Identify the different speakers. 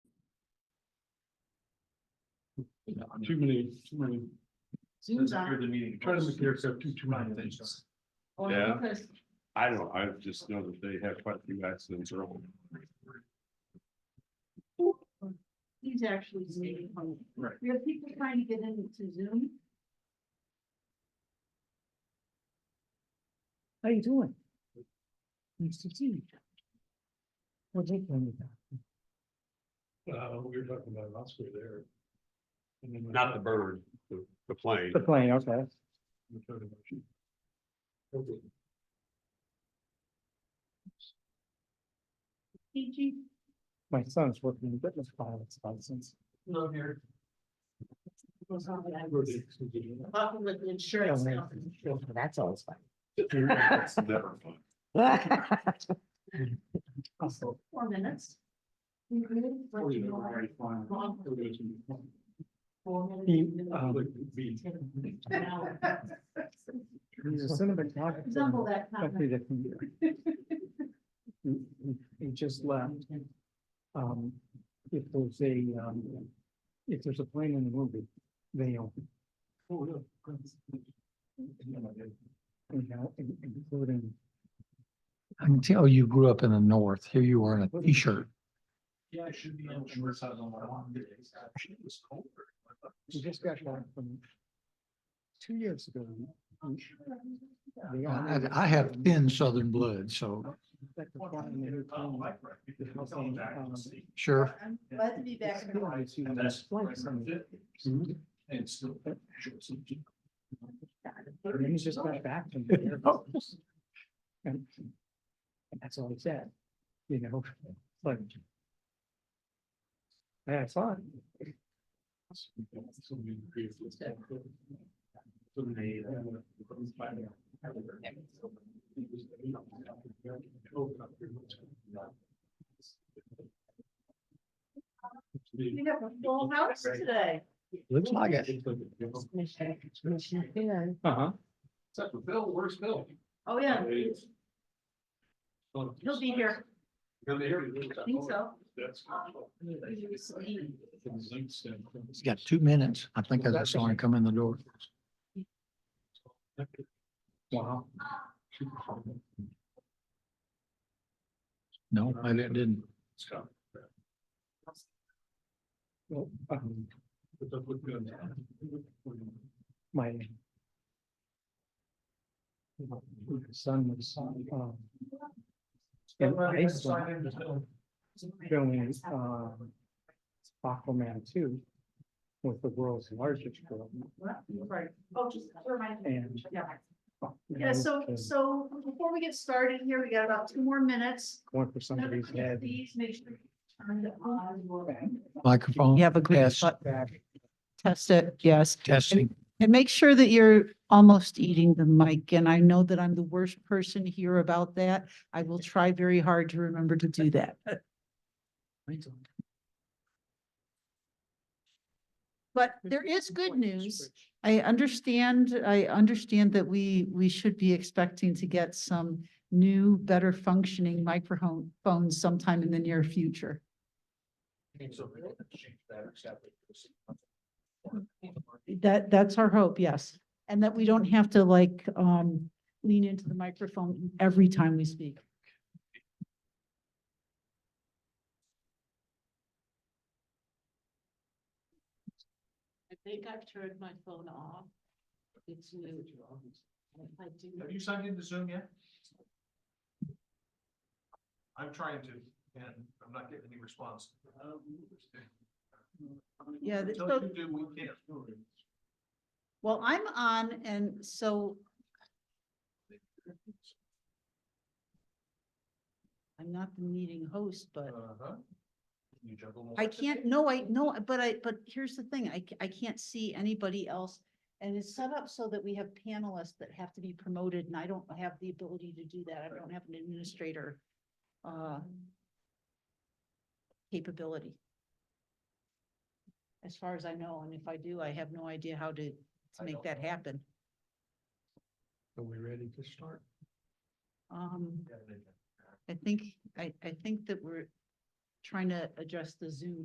Speaker 1: Too many, too many,
Speaker 2: Zoom's
Speaker 3: Since after
Speaker 2: on.
Speaker 3: the meeting.
Speaker 1: trying to make the aircraft too, too many things.
Speaker 3: Thanks.
Speaker 2: Oh,
Speaker 4: Yeah.
Speaker 2: because
Speaker 4: I don't, know. I just know that they have quite a few accidents early.
Speaker 2: He's actually zooming home.
Speaker 3: Right.
Speaker 2: We have people trying to get into Zoom.
Speaker 5: How you doing? Nice to see you. What's it going on?
Speaker 1: Uh, we were talking about last week there. And then-
Speaker 4: Not the bird, the, the plane.
Speaker 5: The plane, okay.
Speaker 1: the third emotion. Okay.
Speaker 2: PG,
Speaker 5: My son's working with this pilot's license.
Speaker 3: No, here.
Speaker 2: goes on with
Speaker 1: Where
Speaker 2: that.
Speaker 1: they- It's
Speaker 2: Problem with the insurance company.
Speaker 5: That's always
Speaker 4: It's never fun.
Speaker 5: fun.
Speaker 2: Also, Four minutes. We good? What
Speaker 1: always
Speaker 2: you
Speaker 1: been
Speaker 2: want?
Speaker 1: very fun. It was been fun.
Speaker 2: Four minutes,
Speaker 5: He, um,
Speaker 2: a minute,
Speaker 1: Uh, like, we-
Speaker 2: ten, an hour.
Speaker 5: He's a cinematographer.
Speaker 2: Resemble that
Speaker 5: Company
Speaker 2: comment.
Speaker 5: that can- He, he- he just left. Um, if there's a, um, if there's a plane in the movie, they own. it.
Speaker 1: Oh, yeah, great.
Speaker 5: You know, in- including,
Speaker 6: I can tell you grew up in the north. Here you are in a t-shirt.
Speaker 3: Yeah, I should be on short side on my lawn today. Actually, it was colder.
Speaker 5: we just got back from two years ago. they
Speaker 6: I,
Speaker 5: honored-
Speaker 6: I have thin southern blood, so
Speaker 5: that the
Speaker 3: Well,
Speaker 5: flying
Speaker 3: I'm
Speaker 5: in
Speaker 3: in- I'm
Speaker 5: Taiwan-
Speaker 3: like, right, because I'm coming back from sea.
Speaker 6: sure.
Speaker 2: I'm glad to be back. in the
Speaker 5: Yeah, I see
Speaker 3: And
Speaker 5: that
Speaker 3: that's
Speaker 5: flight
Speaker 3: right
Speaker 5: center.
Speaker 3: from it.
Speaker 5: Mhm.
Speaker 3: And it's still. short sleeve.
Speaker 5: And he's just got back from there. Oh. And and that's all he said, you know, like. Yeah, it's fun.
Speaker 1: So we created this. So they, uh, it's by the- It was- Open up your minds.
Speaker 2: We have a full house today.
Speaker 6: Looks like it.
Speaker 2: Oh,
Speaker 5: Uh huh.
Speaker 3: Except for Bill, where's Bill?
Speaker 2: Oh, yeah. He'll be here.
Speaker 3: Oh, He'll be here.
Speaker 2: I think so.
Speaker 1: That's.
Speaker 2: He was leaving.
Speaker 6: He's got two minutes. I think I just saw him come in the door.
Speaker 5: Wow.
Speaker 6: No, I didn't- didn't.
Speaker 1: Scott.
Speaker 5: Well, um,
Speaker 1: But that would be on-
Speaker 5: my. Son was, um. In Iceland, filming, uh, Aquaman two. With the world's largest girl.
Speaker 2: Right. Oh, just remind me.
Speaker 5: And-
Speaker 2: Yeah. Yeah, so, so before we get started here, we got about two more minutes.
Speaker 5: Going for somebody's head.
Speaker 2: Please make sure. you turn it on.
Speaker 6: Microphone.
Speaker 7: You have a good
Speaker 6: Yes.
Speaker 7: shot Test it, yes.
Speaker 6: Testing.
Speaker 7: And make sure that you're almost eating the mic. And I know that I'm the worst person here about that. I will try very hard to remember to do that. But there is good news. I understand, I understand that we, we should be expecting to get some new, better functioning microphone phones sometime in the near future. That, that's our hope, yes. And that we don't have to like, um, lean into the microphone every time we speak.
Speaker 2: I think I've turned my phone off. It's new. I do.
Speaker 3: Have you signed into Zoom yet? I'm trying to, and I'm not getting any response.
Speaker 7: Yeah, th-
Speaker 3: Until
Speaker 7: so-
Speaker 3: you do, we can't.
Speaker 7: Well, I'm on and so I'm not the meeting host, but
Speaker 3: Uh-huh. You juggle.
Speaker 7: I can't, no, I, no, but I, but here's the thing, I, c- I can't see anybody else. And it's set up so that we have panelists that have to be promoted and I don't have the ability to do that. I don't have an administrator. uh Capability. As far as I know, and if I do, I have no idea how to, to
Speaker 3: I
Speaker 7: make
Speaker 3: don't
Speaker 7: that
Speaker 3: know.
Speaker 7: happen.
Speaker 1: Are we ready to start?
Speaker 7: Um,
Speaker 3: multi-
Speaker 7: I think, I, I think that we're trying to address the Zoom